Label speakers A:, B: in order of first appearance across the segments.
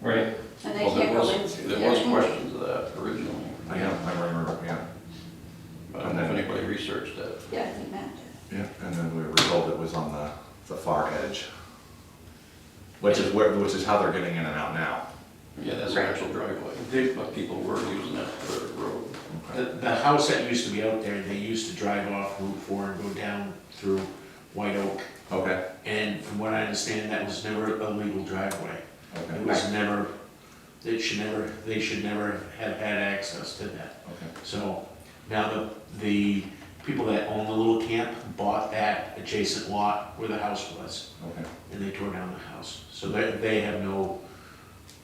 A: right?
B: And they
C: Well, there
B: can't go
C: was-
B: in through there.
C: There was questions of that originally,
D: Yeah, I remember, yeah,
C: but I don't know if anybody researched that.
B: Yeah, I think Matt did.
D: yeah, and then we were told it was on the, the far edge. Which is where, which is how they're getting in and out now.
C: Yeah, that's the actual driveway,
E: They-
C: but people were using that for a road.
D: Okay.
E: The, the house that used to be out there, they used to drive off Route Four and go down through White Oak.
D: Okay,
E: And from what I understand, that was never a legal driveway. It
D: okay,
E: was never, they should never, they should never have had access to that.
D: okay.
E: So now the, the people that own the little camp bought that adjacent lot where the house was,
D: Okay,
E: and they tore down the house. So they, they have no,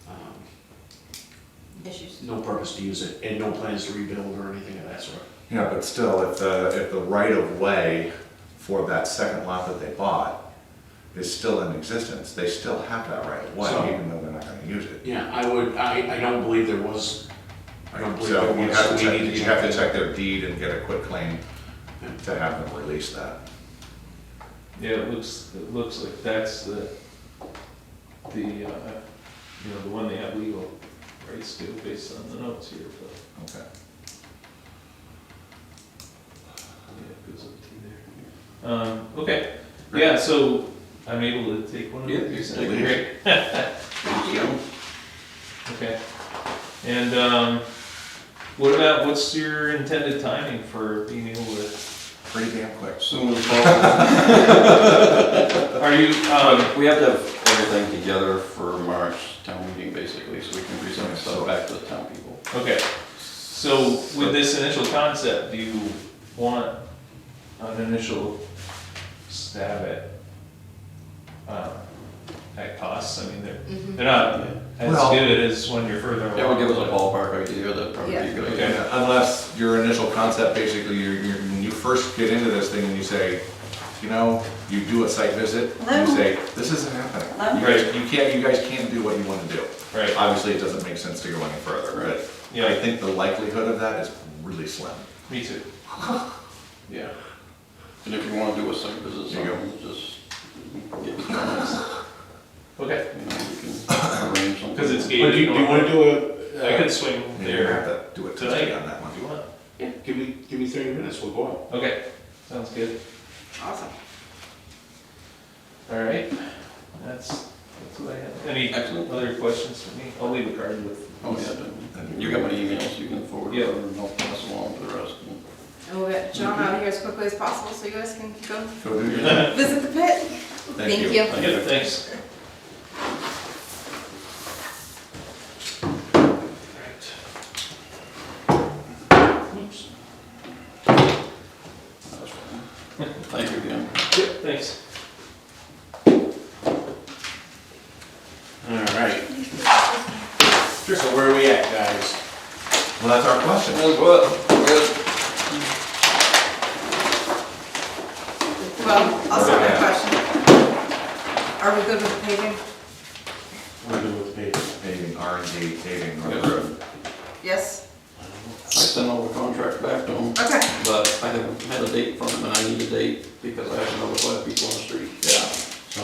E: um,
B: Issues.
E: no purpose to use it, and no plans to rebuild or anything of that sort.
D: yeah, but still, if the, if the right of way for that second lot that they bought is still in existence, they still have that right of way,
E: So-
D: even though they're not gonna use it.
E: Yeah, I would, I, I don't believe there was, I don't believe
D: So
E: there
D: you
E: was.
D: have to
E: We need
D: check,
E: to
D: you have to
E: that.
D: check their deed and get a quick claim to have them release that.
A: Yeah, it looks, it looks like that's the, the, uh, you know, the one they have legal rights to based on the notes here, but,
D: Okay.
A: yeah, it goes up to there. Um, okay, yeah, so I'm able to take one of
C: Yeah,
A: these?
C: you can
A: Okay,
C: leave.
A: great. Okay. And um, what about, what's your intended timing for being able to,
D: Pretty damn quick.
C: Soon as possible.
A: are you, um,
C: We have to have everything together for March town meeting, basically, so we can present stuff back to the town people.
A: okay. So with this initial concept, do you want an initial stab at, um, at costs? I mean, they're, they're not as
D: Well-
A: good as when you're further along.
C: That would give us a ballpark idea, that'd probably be a good idea.
D: Yeah, Unless your initial concept, basically, you're, you're, when you first get into this thing and you say, you know, you do a site visit, and you say, this isn't happening. You guys, you can't, you guys can't do what you wanna do.
A: Right.
D: Obviously, it doesn't make sense to go any further, but I
A: Yeah,
D: think the likelihood of that is really slim.
A: me too.
C: Yeah. And if you wanna do a site visit,
D: There you go.
C: something, just get the comments,
A: Okay,
C: you know, we can arrange something.
A: because it's
E: But do
A: gated.
E: you, do you wanna do a,
A: I
E: uh,
A: could swing
D: You're gonna
A: there
D: have to do it
A: Tonight?
D: today on that one.
A: if you want.
E: give me, give me thirty minutes, we'll go out.
A: Okay, sounds good.
B: Awesome.
A: All right, that's, that's what I have. Any
C: Excellent.
A: other questions for me? I'll leave a card with.
C: Oh, yeah, then. you got my emails, you can forward it,
A: Yeah.
C: and I'll pass along to the rest.
B: And we'll get John out of here as quickly as possible so you guys can go
D: Go do your thing.
B: visit the pit. Thank you.
A: Yeah, thanks.
C: Oops. That's fine. Thank you again.
A: Yep, thanks.
E: Alright. So where are we at, guys?
D: Well, that's our question.
B: Well, I'll start with a
D: Yeah.
B: question. Are we good with the paving?
E: We're good with paving.
D: Paving, R and D, paving, or
C: Yeah.
D: road.
B: Yes?
C: I sent all the contracts back to them,
B: Okay.
C: but I haven't had a date from them, and I need a date because I have another five people on the street.
D: Yeah.
E: So,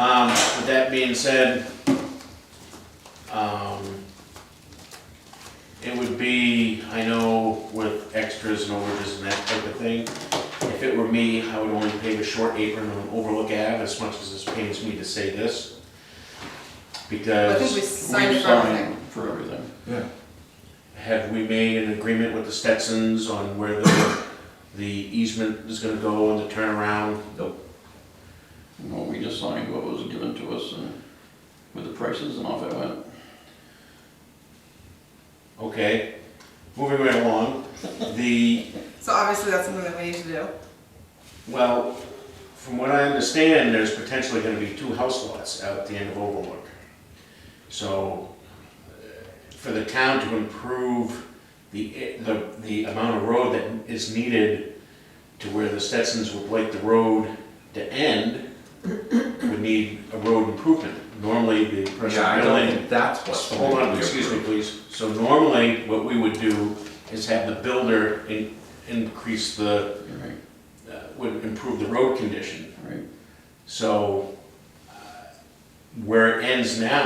E: um, with that being said, um, it would be, I know with extras and overages and that type of thing, if it were me, I would only pave a short apron on Overlook Ave, as much as this pains me to say this.
B: I think we
E: Because
B: signed
C: We
B: for everything.
C: signed for everything.
D: Yeah.
E: have we made an agreement with the Stetsons on where the, the easement is gonna go and the turnaround?
C: You know, we just signed what was given to us and with the prices and off it went.
E: Okay, moving right along, the
B: So obviously that's something that we need to do.
E: Well, from what I understand, there's potentially gonna be two house lots out at the end of Overlook. So, uh, for the town to improve the, the, the amount of road that is needed to where the Stetsons would like the road to end, would need a road improvement. Normally, the person
D: Yeah, I don't
E: building
D: think that's what's.
E: Hold on, excuse me, please. So normally, what we would do is have the builder in, increase the,
C: All right,
E: uh, would improve the road condition.
C: all right.
E: So uh, where it ends now